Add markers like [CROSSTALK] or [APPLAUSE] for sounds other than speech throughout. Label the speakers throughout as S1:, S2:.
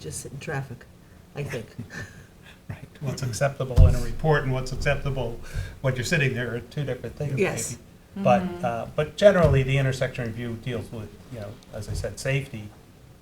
S1: just sit in traffic, I think.
S2: [LAUGHS]
S3: Right, what's acceptable in a report and what's acceptable when you're sitting there are two different things.
S1: Yes.
S4: Mm-hmm.
S3: maybe. But, uh, but generally, the intersection review deals with, you know, as I said, safety.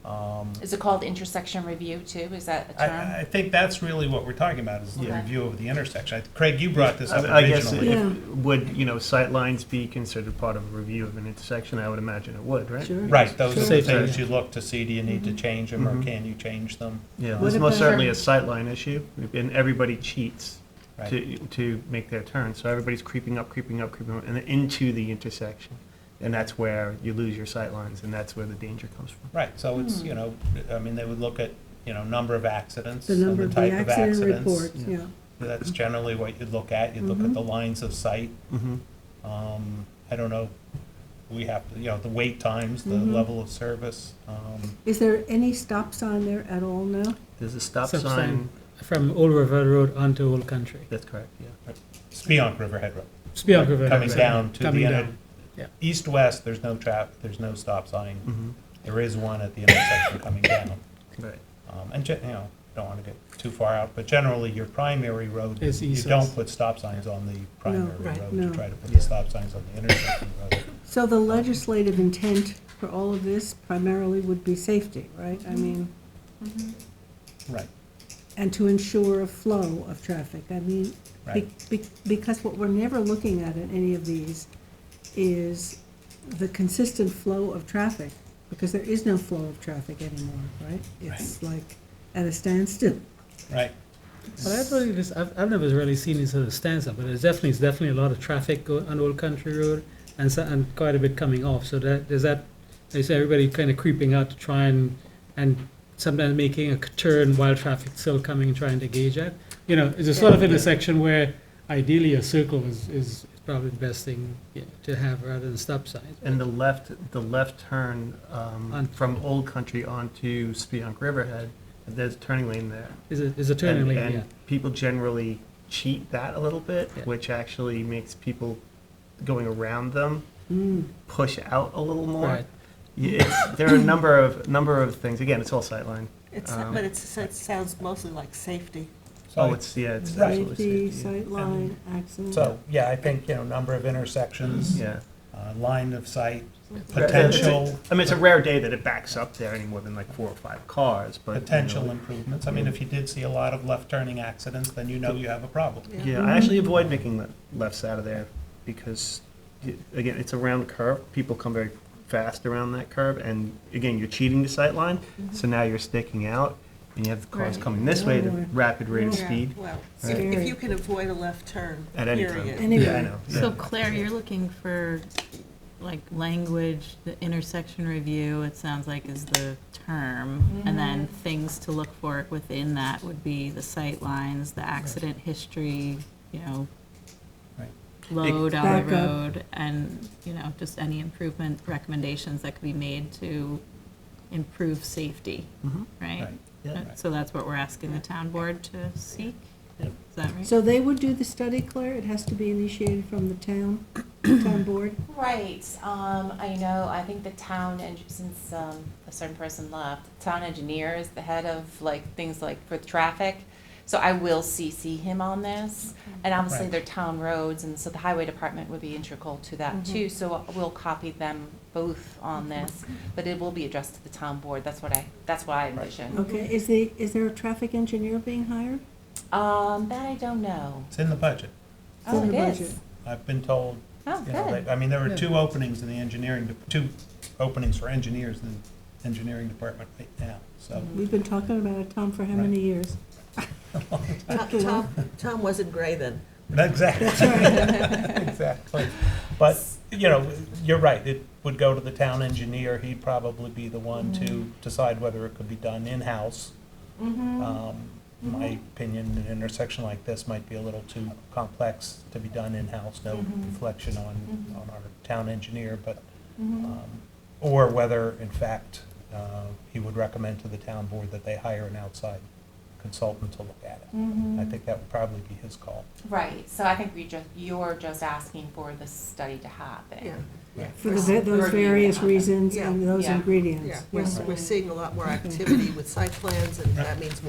S3: Um,
S4: Is it called intersection review too? Is that a
S3: I,
S4: term?
S3: I think that's really what we're talking about, is the
S4: Okay.
S3: review of the intersection. I- Craig, you brought this up
S2: I I guess,
S3: originally.
S1: Yeah.
S2: if- would, you know, sightlines be considered part of a review of an intersection? I would imagine it would, right?
S1: Sure.
S3: Right, those are the
S2: Safety.
S3: things you look to see, do you need to change them, or
S2: Mhm.
S3: can you change them?
S2: Yeah,
S1: What
S2: it's most
S1: about-
S2: certainly a sightline issue, and everybody cheats
S3: Right,
S2: to, to make their turn. So everybody's creeping up, creeping up, creeping up, and then into the intersection. And that's where you lose your sightlines, and that's where the danger comes from.
S3: right, so it's, you know, I mean, they would look at, you know, number of accidents
S5: The
S3: and
S5: number
S3: the
S5: of
S3: type
S5: the
S3: of
S5: accident
S3: accidents.
S5: report, yeah.
S3: That's generally what you'd look at, you'd look at the lines of sight,
S2: Mm-hmm.
S3: Um, I don't know, we have, to, you know, the wait times, the level of service, um,
S5: Is there any stops on there at all now?
S2: There's a stop
S6: Stop
S2: sign,
S6: sign. From Old River Road onto Old Country.
S2: that's correct, yeah.
S3: Spionk Riverhead Road.
S6: It's beyond River.
S3: Coming down to the
S6: Coming
S3: end.
S6: down.
S3: East-west, there's no trap, there's no stop sign.
S2: Mhm.
S3: There is one at the intersection
S6: [COUGHS]
S3: coming down.
S2: Right.
S3: Um, and, gen- you know, don't want to get too far out, but generally, your primary road,
S6: Is
S3: you
S6: east-west.
S3: don't put stop signs on the primary
S1: right,
S3: road. You
S5: no.
S3: try to put the stop signs on the intersection road.
S5: So the legislative intent for all of this primarily would be safety, right? I mean,
S4: Mm-hmm.
S3: Right,
S5: and to ensure a flow of traffic. I mean, be-
S3: right.
S5: be- because what we're never looking at in any of these is the consistent flow of traffic, because there is no flow of traffic anymore, right? It's like at a standstill.
S3: Right,
S6: But I thought it is, I've, I've never really seen this sort of stanza, but it's definitely, it's definitely a lot of traffic go on Old Country Road and so, and quite a bit coming off, so that, there's that, they say everybody kind of creeping out to try and, and sometimes making a turn while traffic's still coming, and trying to gauge it. You know, it's a sort of intersection where ideally a circle is, is probably the best thing yeah, to have rather than stop signs.
S2: And the left, the left turn um,
S6: On-
S2: from Old Country onto Spionk Riverhead, there's a turning lane there.
S6: Is a, is a turning
S2: and,
S6: lane,
S2: and
S6: yeah.
S2: people generally cheat that a little bit,
S6: Yeah.
S2: which actually makes people going around them
S5: Mm.
S2: push out a little more.
S6: Right.
S2: Y- It's, there are a number of number of things. Again, it's all sightline.
S1: It's,
S2: Um,
S1: but it's, it sounds mostly like safety.
S2: Oh, it's yeah, it's absolutely
S5: Safety,
S2: safety,
S5: sightline, accident.
S3: so, yeah, I think, you know, number of intersections,
S2: Yeah.
S3: uh, line of sight,
S2: Yeah.
S3: potential,
S2: I mean, it's a rare day that it backs up there any more than like four or five cars, but you know,
S3: potential improvements. I mean, if you did see a lot of left-turning accidents, then you know you have a problem.
S2: Yeah, I actually avoid making le- lefts out of there because, y- again, it's a round curve. People come very fast around that curve, and again, you're cheating the sight line. So now you're sticking out, and you have the cars
S4: Right.
S2: coming this way at a
S5: Oh, boy.
S2: rapid rate of
S4: Yeah.
S2: speed
S1: Well,
S2: if- Right.
S5: if you
S1: can avoid a left turn,
S2: at any time.
S5: Anyway.
S2: Yeah, I know.
S7: So
S2: yeah.
S7: Claire, you're looking for, like, language, the intersection review, it sounds like is the term. And then
S3: Mm-hmm.
S7: things to look for within that would be the sight lines, the accident history, you know,
S3: Right.
S7: load on
S5: Backup.
S7: the road, and, you know, just any improvement recommendations that could be made to improve safety,
S2: Mhm.
S7: right?
S3: Right.
S2: Yeah.
S7: Uh, So that's what we're asking the town board to seek?
S3: Yeah.
S7: Is that right?
S5: So they would do the study, Claire? It has to be initiated from the town, town board?
S4: Right, um, I know, I think the town, eng- since, um, a certain person left, town engineer is the head of, like, things like for traffic. So I will CC him on this, and obviously
S3: Right.
S4: they're town roads, and so the highway department would be integral to that too, so we'll copy them both on this. But it will be addressed to the town board, that's what I, that's what I envision.
S5: Okay, is the, is there a traffic engineer being hired?
S4: Um, that I don't know.
S3: It's in the budget.
S5: It's
S4: Oh,
S5: in
S4: it
S5: the
S4: is.
S5: budget.
S3: I've been told,
S4: Oh,
S3: you know,
S4: good.
S3: that- I mean, there were
S6: Yeah.
S3: two openings in the engineering, de- two openings for engineers in the engineering department right now, so.
S5: We've been talking about it, Tom, for how
S3: Right.
S5: many years?
S1: Tom- Tom, Tom wasn't gray then.
S3: [LAUGHS] Exactly. Exactly. But, you know, you're right, it would go to the town engineer, he'd probably be the one to decide whether it could be done in-house.
S4: Mm-hmm,
S3: Um, My opinion, an intersection like this might be a little too complex to be done in-house, no reflection on, on our town engineer, but, um, or whether, in fact, uh, he would recommend to the town board that they hire an outside consultant to look at it.
S4: mm-hmm,
S3: I think that would probably be his call.
S4: Right, so I think we just, you're just asking for the study to happen.
S1: Yeah.
S7: Yeah.
S5: for the va- those various reasons and those
S4: Yeah.
S5: ingredients.
S7: Yeah, we're,
S5: yeah.
S7: we're seeing a lot more activity with site plans, and that means more